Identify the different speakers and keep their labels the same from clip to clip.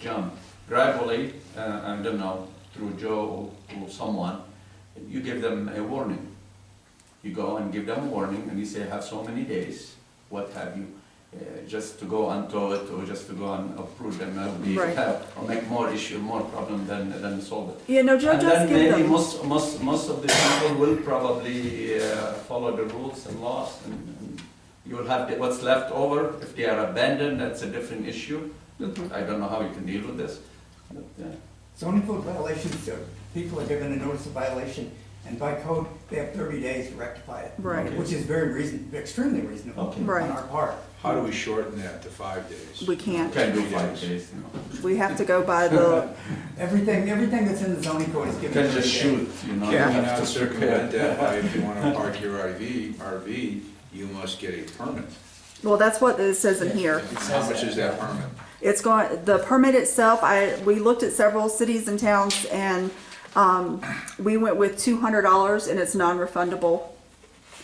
Speaker 1: John. Gradually, uh, I don't know, through Joe or someone, you give them a warning. You go and give them a warning and you say, have so many days, what have you, uh, just to go and tow it or just to go and approve them, uh, that would be,
Speaker 2: Right.
Speaker 1: or make more issue, more problem than, than solve it.
Speaker 2: Yeah, no, Joe
Speaker 1: And
Speaker 2: does
Speaker 1: then
Speaker 2: give
Speaker 1: maybe
Speaker 2: them.
Speaker 1: most, most, most of the people will probably uh, follow the rules and laws and and you'll have the- what's left over. If they are abandoned, that's a different issue.
Speaker 2: Mhm.
Speaker 1: I don't know how you can deal with this. But, uh, yeah.
Speaker 3: Zoning code violations, uh, people are given a notice of violation, and by code, they have thirty days to rectify it.
Speaker 2: Right.
Speaker 3: Which is very reason, extremely reasonable
Speaker 1: Okay.
Speaker 3: on
Speaker 2: Right.
Speaker 3: our part.
Speaker 4: How do we shorten that to five days?
Speaker 2: We can't.
Speaker 1: Can do five days, you know.
Speaker 2: We have to go by the,
Speaker 3: Everything, everything that's in the zoning code is
Speaker 1: You
Speaker 3: given.
Speaker 1: can
Speaker 3: 30
Speaker 1: just
Speaker 3: days.
Speaker 1: shoot, you know. you
Speaker 4: Can we
Speaker 1: have to
Speaker 4: not circumvent
Speaker 1: prepare.
Speaker 4: that by if you wanna park your RV, RV, you must get a permit?
Speaker 2: well, that's what it says in here.
Speaker 4: How much is that permit?
Speaker 2: It's going, the permit itself, I, we looked at several cities and towns and, um, we went with two hundred dollars and it's non-refundable.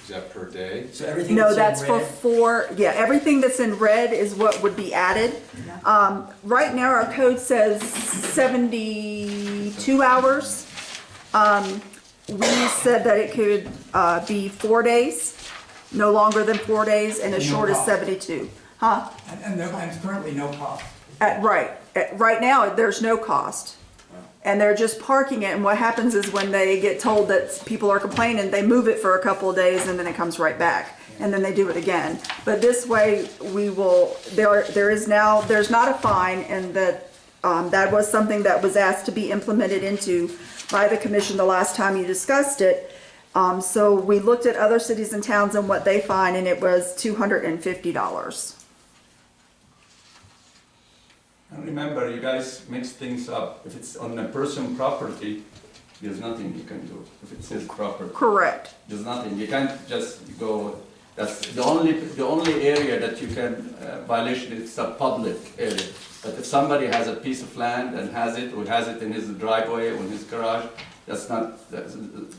Speaker 4: Is that per day?
Speaker 5: So everything
Speaker 2: No,
Speaker 5: that's
Speaker 2: that's
Speaker 5: in
Speaker 2: for
Speaker 5: red,
Speaker 2: four, yeah, everything that's in red is what would be added.
Speaker 5: Mm-hmm.
Speaker 2: Um, right now, our code says seventy-two hours. Um, we said that it could, uh, be four days, no longer than four days, and as
Speaker 3: No
Speaker 2: short as
Speaker 3: problem.
Speaker 2: seventy-two, huh?
Speaker 3: And, and there, and currently no cost.
Speaker 2: At, right, at, right now, there's no cost. And they're just parking it, and what happens is when they get told that people are complaining, they move it for a couple of days and then it comes right back. And then they do it again. But this way, we will, there, there is now, there's not a fine and that, um, that was something that was asked to be implemented into by the commission the last time you discussed it. Um, so we looked at other cities and towns and what they find, and it was two hundred and fifty dollars.
Speaker 1: And remember, you guys mix things up. If it's on a person property, there's nothing you can do. If it's his property.
Speaker 2: Correct.
Speaker 1: There's nothing, you can't just go, that's the only, the only area that you can uh, violation is a public area. But if somebody has a piece of land and has it, or has it in his driveway or in his garage, that's not, that's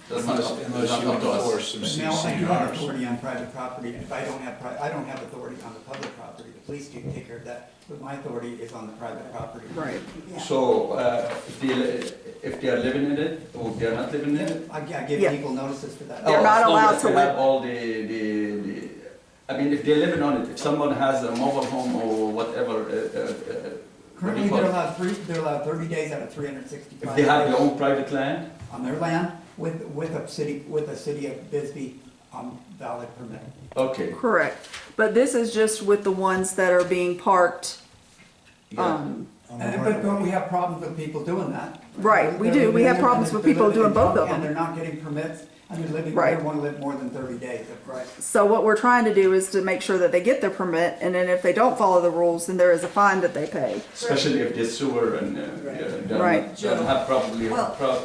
Speaker 1: that's not,
Speaker 4: Unless
Speaker 1: up- that's
Speaker 4: unless
Speaker 1: not
Speaker 4: you
Speaker 1: up to us.
Speaker 4: enforce some
Speaker 3: But now I do have
Speaker 4: CCNRs.
Speaker 3: authority on private property, and if I don't have, pri- I don't have authority on the public property, the police do take care of that, but my authority is on the private property.
Speaker 2: Right.
Speaker 3: Yeah.
Speaker 1: So, uh, if they, if they are living in it, or if they are not living in
Speaker 3: Yeah,
Speaker 1: it.
Speaker 3: I, I give
Speaker 2: Yeah.
Speaker 3: people notices for that.
Speaker 2: They're
Speaker 1: oh,
Speaker 2: not
Speaker 1: as long
Speaker 2: allowed
Speaker 1: as
Speaker 2: to
Speaker 1: they have
Speaker 2: live-
Speaker 1: All the, the, the, I mean, if they're living on it, if someone has a mobile home or whatever, uh, uh, uh, what do
Speaker 3: Currently,
Speaker 1: you call
Speaker 3: they're
Speaker 1: it?
Speaker 3: allowed three, they're allowed thirty days out of three hundred and sixty-five.
Speaker 1: If they have their own private land,
Speaker 3: on their land with, with a city, with a city of Bisbee, um, valid permit.
Speaker 1: okay.
Speaker 2: Correct, but this is just with the ones that are being parked,
Speaker 1: yeah.
Speaker 2: um,
Speaker 5: on the
Speaker 3: And,
Speaker 5: right
Speaker 3: but,
Speaker 5: of
Speaker 3: but
Speaker 5: way.
Speaker 3: we have problems with people doing that.
Speaker 2: Right, we do. We have problems with people
Speaker 3: They're living in
Speaker 2: doing both
Speaker 3: junk
Speaker 2: of them.
Speaker 3: And they're not getting permits, and they're living, they
Speaker 2: Right.
Speaker 3: don't wanna live more than thirty days. Right.
Speaker 2: so what we're trying to do is to make sure that they get their permit, and then if they don't follow the rules, then there is a fine that they pay.
Speaker 1: Especially if they sewer and, uh,
Speaker 5: Right.
Speaker 1: yeah, don't-
Speaker 2: Right.
Speaker 1: don't have probably,
Speaker 5: Well-
Speaker 1: prob,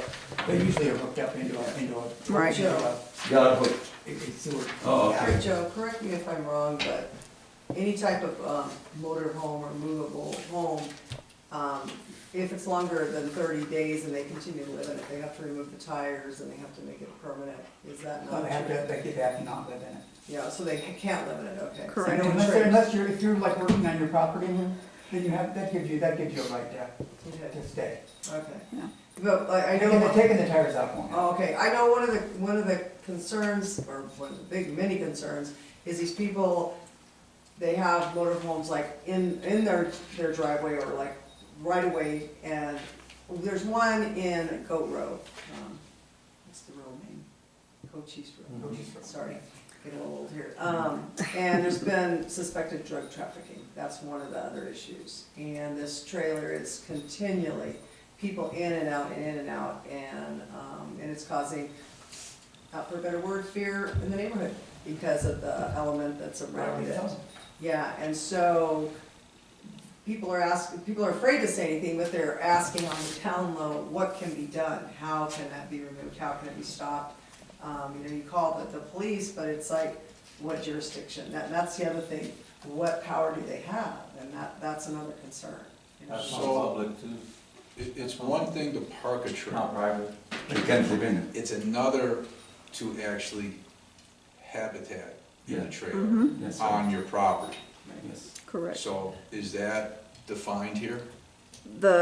Speaker 3: They usually are hooked up into a, into a.
Speaker 2: Right.
Speaker 3: into a-
Speaker 1: they are hooked.
Speaker 3: a- a sewer.
Speaker 1: Oh,
Speaker 3: Yeah.
Speaker 1: okay.
Speaker 6: Alright, Joe, correct me if I'm wrong, but any type of um, motor home or movable home, um, if it's longer than thirty days and they continue to live in it, they have to remove the tires and they have to make it permanent, is that
Speaker 3: But
Speaker 6: not
Speaker 3: they have to,
Speaker 6: true?
Speaker 3: they could have to not live in it.
Speaker 6: Yeah, so they can't live in it, okay. So
Speaker 2: Correct.
Speaker 6: no
Speaker 3: Unless,
Speaker 6: trade.
Speaker 3: unless you're, if you're like working on your property, then you have, that gives you, that gives you a right to,
Speaker 6: Okay,
Speaker 3: to stay.
Speaker 2: Yeah.
Speaker 6: okay. But like, I know.
Speaker 3: Taking the, taking the tires out won't help.
Speaker 6: Oh, Okay, I know one of the, one of the concerns, or one of the big, many concerns, is these people, they have motor homes like in, in their, their driveway or like right away, and there's one in Goat Road. um, What's the road name? Cochise Road,
Speaker 3: Cochise Road.
Speaker 6: sorry, getting a little old here. Um, and there's been suspected drug trafficking, that's one of the other issues. And this trailer is continually people in and out and in and out, and, um, and it's causing, out for a better word, fear in the neighborhood because of the element that's around it. Yeah, and so people are asking, people are afraid to say anything, but they're asking on the town low, what can be done? How can that be removed? How can it be stopped? Um, you know, you call the, the police, but it's like, what jurisdiction? That, that's the other thing. What power do they have? And that, that's another concern. you know?
Speaker 7: That's not
Speaker 4: So-
Speaker 7: public too,
Speaker 4: It, it's one thing to park a
Speaker 7: not
Speaker 4: trailer,
Speaker 7: private.
Speaker 1: You can't live in it.
Speaker 4: it's another to actually habitat in
Speaker 1: Yeah.
Speaker 4: a trailer
Speaker 2: Mm-hmm,
Speaker 1: Yes,
Speaker 4: on your property.
Speaker 1: yes.
Speaker 2: correct.
Speaker 4: So is that defined here?
Speaker 2: the